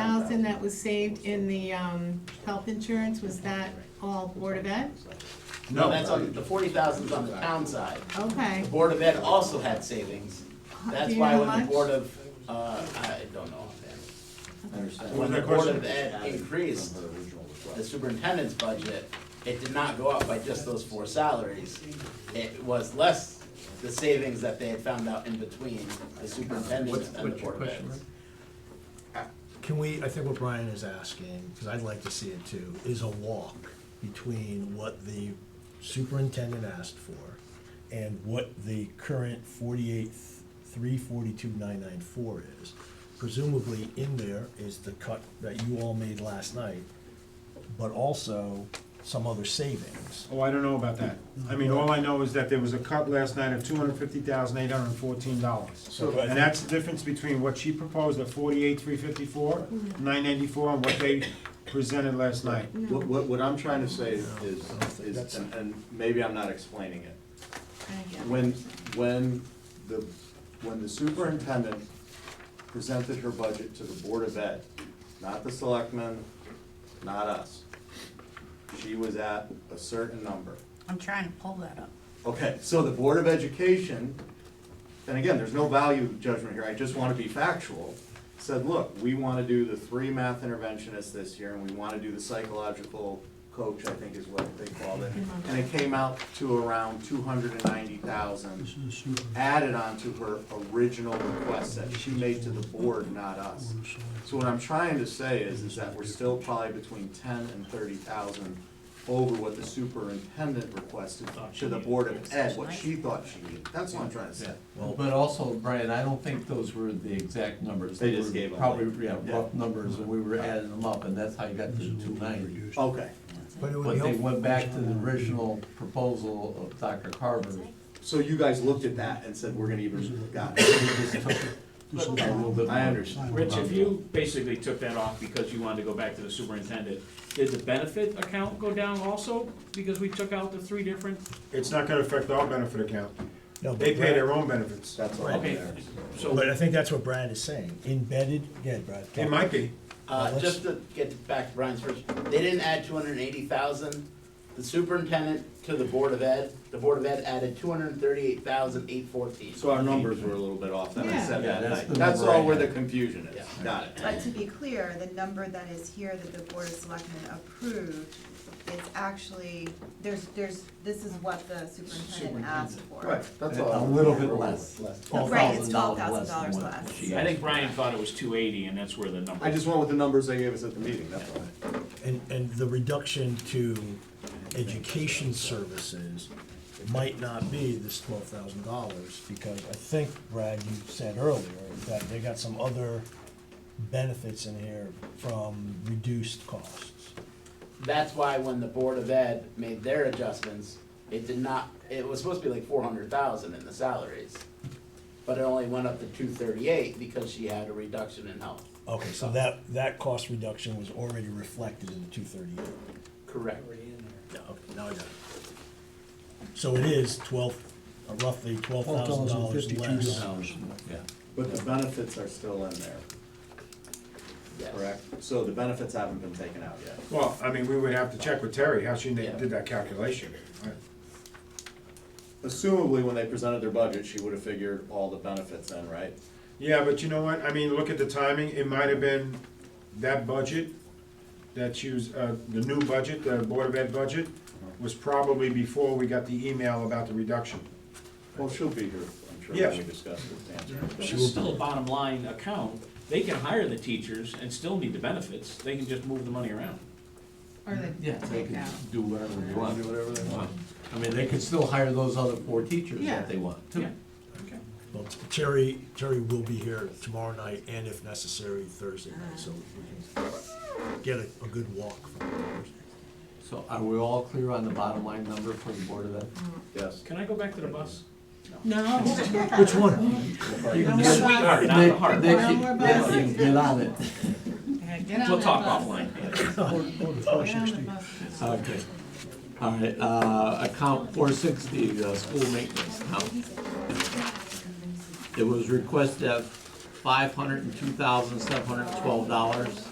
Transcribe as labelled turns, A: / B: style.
A: thousand that was saved in the, um, health insurance, was that all Board of Ed?
B: No, that's on, the forty thousand's on the town side.
A: Okay,
B: The Board of Ed also had savings. That's
A: you
B: why
A: know
B: when
A: much?
B: the Board of, uh, I don't know offhand.
C: Understand.
B: When the
D: that
B: Board
D: question?
B: of Ed increased the superintendent's budget, it did not go up by just those four salaries. It was less the savings that they had found out in between the superintendent
E: What's,
B: and the
E: what's your
B: Board of Ed.
E: question, Rick?
D: Can we, I think what Brian is asking, because I'd like to see it too, is a walk between what the superintendent asked for and what the current forty-eight, three forty-two, nine nine four is. Presumably in there is the cut that you all made last night, but also some other savings.
F: Oh, I don't know about that. I mean, all I know is that there was a cut last night of two hundred fifty thousand, eight hundred and fourteen dollars.
D: So-
F: And that's the difference between what she proposed at forty-eight, three fifty-four, nine ninety-four, and what they presented last night.
C: What, what, what I'm trying to say is, is, and- and maybe I'm not explaining it.
A: I get it.
C: When, when the, when the superintendent presented her budget to the Board of Ed, not the selectmen, not us, she was at a certain number.
G: I'm trying to pull that up.
C: Okay, so the Board of Education, and again, there's no value judgment here, I just wanna be factual, said, look, we wanna do the three math interventionists this year, and we wanna do the psychological coach, I think is what they called it. And it came out to around two hundred and ninety thousand, added on to her original request that she made to the board, not us. So what I'm trying to say is, is that we're still probably between ten and thirty thousand over what the superintendent requested to the Board of Ed, what she thought she needed. That's what I'm trying to say.
E: Well, but also, Brian, I don't think those were the exact numbers.
C: They just
E: were
C: gave them.
E: Probably, yeah,
C: Yeah.
E: rough numbers, and we were adding them up, and that's how you got to the two ninety.
C: Okay,
D: But it would be
E: But they
D: helpful-
E: went back to the original proposal of Dr. Carver.
C: so you guys looked at that and said, we're gonna even, got it. I understand.
H: Rich, if you basically took that off because you wanted to go back to the superintendent, did the benefit account go down also? Because we took out the three different,
F: It's not gonna affect our benefit account.
D: No, but
F: They pay
D: Brad-
F: their own benefits.
C: That's all
H: okay,
C: there.
D: But I
H: so,
D: think that's what Brad is saying, embedded, yeah, Brad.
F: It might be.
B: Uh,
D: Let's-
B: just to get back to Brian's first, they didn't add two hundred and eighty thousand. The superintendent to the Board of Ed, the Board of Ed added two hundred and thirty-eight thousand, eight fourteen.
C: So our numbers were a little bit off that I said
E: Yeah. Yeah,
C: that
E: that's
C: night.
E: the
C: That's
E: number I
C: all where the
E: had.
C: confusion is.
B: Yeah.
C: Got it.
I: But to be clear, the number that is here that the Board of Selectmen approved, it's actually, there's, there's, this is what the superintendent asked for.
C: Right, that's all.
E: A little bit less.
I: Right, it's
E: $12,000
I: $12,000
E: than what
I: less.
E: she
H: I think
E: asked.
H: Brian thought it was two eighty and that's where the number.
C: I just went with the numbers they gave us at the meeting, that's all.
D: And, and the reduction to education services might not be this twelve thousand dollars, because I think, Brad, you said earlier, that they got some other benefits in here from reduced costs.
B: That's why when the Board of Ed made their adjustments, it did not, it was supposed to be like four hundred thousand in the salaries. But it only went up to two thirty-eight because she had a reduction in health.
D: Okay, so that, that cost reduction was already reflected in the two thirty-eight.
B: Correct.
D: Okay, now I got it. So it is twelve, roughly twelve thousand dollars less.
E: Yeah.
C: But the benefits are still in there,
B: Yes.
C: correct? So the benefits haven't been taken out yet.
F: Well, I mean, we would have to check with Terry how she
B: Yeah.
F: did that calculation.
C: Assumably, when they presented their budget, she would have figured all the benefits in, right?
F: Yeah, but you know what, I mean, look at the timing, it might have been that budget, that use, uh, the new budget, the Board of Ed budget, was probably before we got the email about the reduction.
C: Well, she'll be here, I'm sure,
F: Yeah.
C: when we discuss it, to answer.
H: This is still a bottom line account. They can hire the teachers and still need the benefits. They can just move the money around.
A: Or the
E: Yeah, they
A: take
E: could
A: out.
E: do whatever they want.
C: Do whatever they want.
E: I mean, they could still hire those other four teachers
A: Yeah.
E: if they want
H: Yeah.
E: to.
H: Okay.
D: Well, Terry, Terry will be here tomorrow night and if necessary, Thursday night, so we can get a, a good walk from there.
E: So are we all clear on the bottom line number for the Board of Ed?
C: Yes.
H: Can I go back to the bus?
A: No.
D: Which one?
A: No more
E: Nick-
A: buses.
H: Sweetheart, not the heart.
E: Nick,
A: No more buses.
E: Nick, Get on it.
A: Yeah, Get on
H: We'll
A: that
H: talk
A: bus.
H: offline.
D: Oh,
A: Get on the bus.
E: Okay. All right, uh, account four sixty, the school maintenance account. It was requested that five hundred and two thousand, seven hundred and twelve dollars.